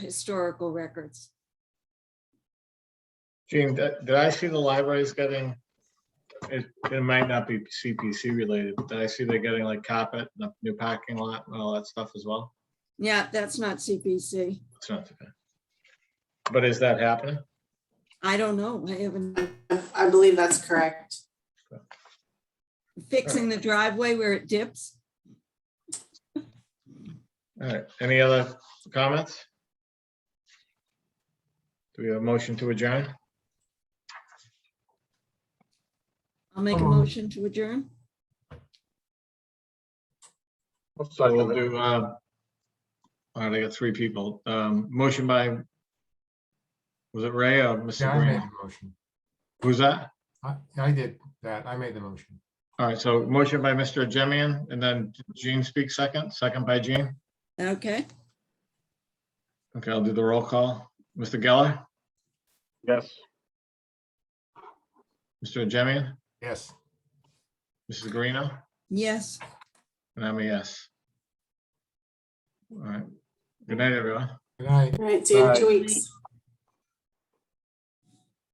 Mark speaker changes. Speaker 1: historical records.
Speaker 2: Gene, did did I see the libraries getting, it, it might not be CPC related, but did I see they're getting like carpet, and a new parking lot, and all that stuff as well?
Speaker 1: Yeah, that's not CPC.
Speaker 2: It's not, okay. but is that happening?
Speaker 1: I don't know. I haven't
Speaker 3: I believe that's correct.
Speaker 1: fixing the driveway where it dips.
Speaker 2: All right, any other comments? Do we have a motion to adjourn?
Speaker 1: I'll make a motion to adjourn.
Speaker 2: So we'll do, uh, all right, I got three people. Um, motion by, was it Ray or
Speaker 4: Yeah,
Speaker 2: Mr.
Speaker 4: I made
Speaker 2: Green?
Speaker 4: the motion.
Speaker 2: Who's that?
Speaker 4: I, I did that. I made the motion.
Speaker 2: All right, so motion by Mr. Jemian, and then Gene speaks second, second by Gene.
Speaker 1: Okay,
Speaker 2: Okay, I'll do the roll call. Mr. Geller,
Speaker 5: Yes.
Speaker 2: Mr. Jemian,
Speaker 4: Yes.
Speaker 2: Mrs. Greeno,
Speaker 1: yes.
Speaker 2: and I'm a yes. All right, good night, everyone.
Speaker 4: Good night.
Speaker 3: All right, see you in two
Speaker 5: Bye.
Speaker 3: weeks.